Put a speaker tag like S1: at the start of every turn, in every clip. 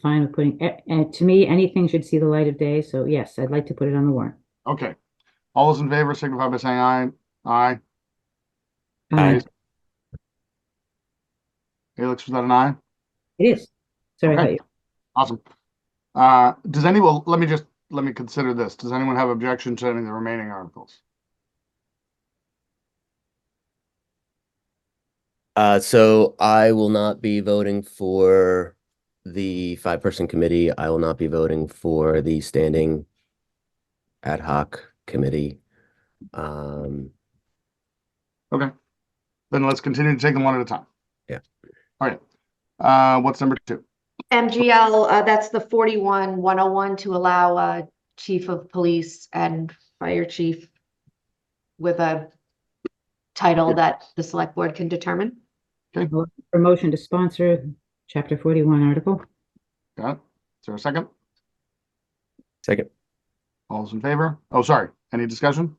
S1: fine with putting, eh, eh, to me, anything should see the light of day, so yes, I'd like to put it on the warrant.
S2: Okay. All those in favor signify by saying aye. Aye.
S1: Uh,
S3: Aye.
S2: Alex, was that an aye?
S1: It is. Sorry, I
S2: Okay.
S1: thought you-
S2: Awesome. Uh, does anyone, let me just, let me consider this. Does anyone have objection to any of the remaining articles?
S3: Uh, so I will not be voting for the five-person committee. I will not be voting for the standing ad hoc committee. Um,
S2: Then let's continue to take them one at a time.
S3: Yeah.
S2: All right. Uh, what's number two?
S4: MGL, uh, that's the forty-one, one oh one to allow, uh, chief of police and fire chief with a title that the select board can determine.
S1: for motion to sponsor, chapter forty-one article.
S2: Got it? Is there a second?
S3: second,
S2: All those in favor? Oh, sorry. Any discussion?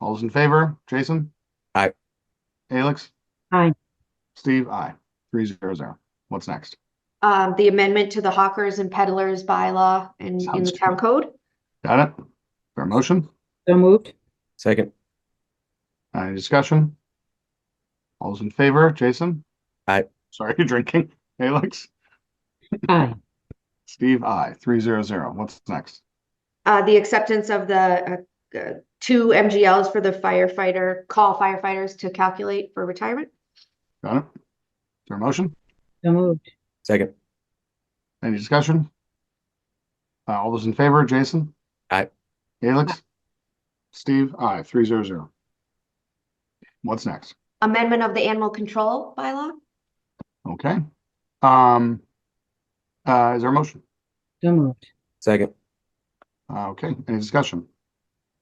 S2: All those in favor? Jason?
S3: Aye.
S2: Alex?
S1: Aye.
S2: Steve, aye. Three zero zero. What's next?
S4: Um, the amendment to the hawkers and peddlers bylaw in, in
S2: Sounds
S4: the town code.
S2: Got it? Fair motion?
S1: So moved.
S3: second,
S2: Any discussion? All those in favor? Jason?
S3: Aye.
S2: Sorry, you're drinking. Alex?
S1: Aye.
S2: Steve, aye. Three zero zero. What's next?
S4: Uh, the acceptance of the, uh, uh, two MGLs for the firefighter, call firefighters to calculate for retirement.
S2: Got it? Fair motion?
S1: So moved.
S3: second,
S2: Any discussion? Uh, all those in favor, Jason?
S3: Aye.
S2: Alex? Steve, aye, three zero zero. What's next?
S4: Amendment of the animal control bylaw.
S2: Okay. Um, uh, is there a motion?
S1: So moved.
S3: second,
S2: Uh, okay, any discussion?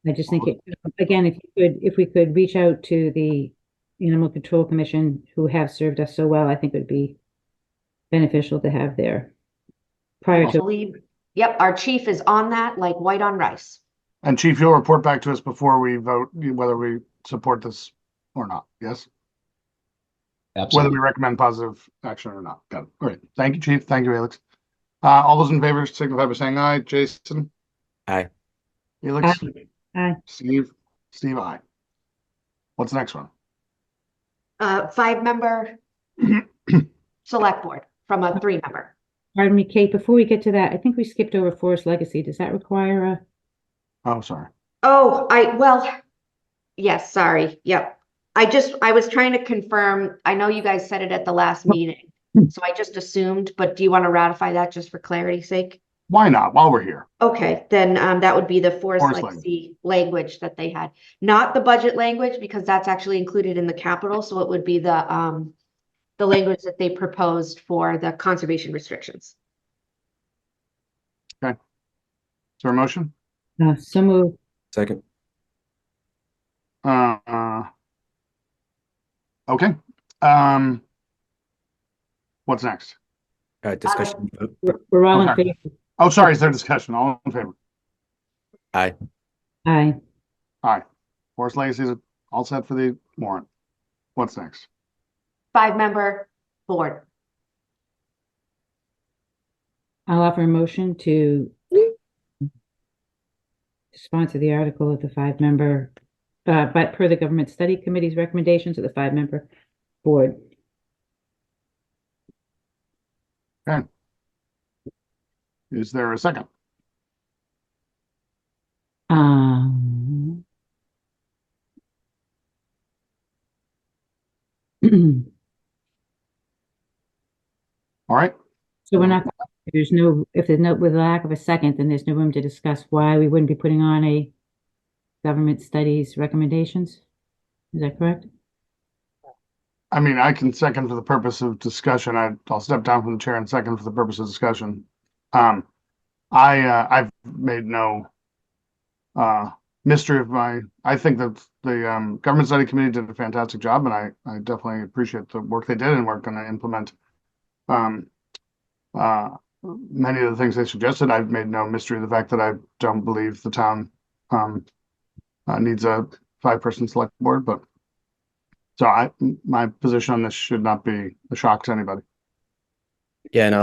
S1: I just think, it- again, if you could, if we could reach out to the Animal Control Commission, who have served us so well, I think it would be beneficial to have there. Prior
S4: I
S1: to,
S4: believe, yep, our chief is on that, like white on rice.
S2: And Chief, you'll report back to us before we vote whether we support this or not, yes? Whether we recommend positive action or not. Got it. All right. Thank you, Chief. Thank you, Alex. Uh, all those in favor signify by saying aye. Jason?
S3: Aye.
S2: Alex?
S1: Aye.
S2: Steve? Steve, aye. What's the next one?
S4: Uh, five-member select board from a three-member.
S1: pardon me, Kate, before we get to that, I think we skipped over Forest Legacy. Does that require a,
S2: Oh, sorry.
S4: Oh, I, well, yes, sorry, yep. I just, I was trying to confirm, I know you guys said it at the last meeting, so I just assumed, but do you want to ratify that just for clarity's sake?
S2: Why not? While we're here.
S4: Okay, then, um, that would be the forest
S2: Forest
S4: legacy language that they had, not the budget language, because that's actually included in the capital, so it would be the, um, the language that they proposed for the conservation restrictions.
S2: Is there a motion?
S1: uh, so moved,
S3: second,
S2: Uh, uh, okay. Um, what's next?
S3: uh, discussion, vote.
S1: We're- we're all in
S2: Okay.
S1: favor?
S2: Oh, sorry. Is there discussion? All in favor?
S1: Aye.
S2: Forest Legacy is all set for the warrant. What's next?
S4: Five-member board.
S1: I'll offer a motion to sponsor the article of the five-member, uh, but per the Government Study Committee's recommendations of the five-member board.
S2: Is there a second?
S1: Um. So
S2: All right.
S1: we're not, if there's no, if there's no, with lack of a second, then there's no room to discuss why we wouldn't be putting on a government studies recommendations. Is that correct?
S2: I mean, I can second for the purpose of discussion. I, I'll step down from the chair and second for the purpose of discussion. Um, I, uh, I've made no uh, mystery of my, I think that the um, government study committee did a fantastic job and I, I definitely appreciate the work they did and we're going to implement um, uh, many of the things they suggested. I've made no mystery of the fact that I don't believe the town um, uh, needs a five-person select board, but so I, m- my position on this should not be a shock to anybody.
S3: Yeah, and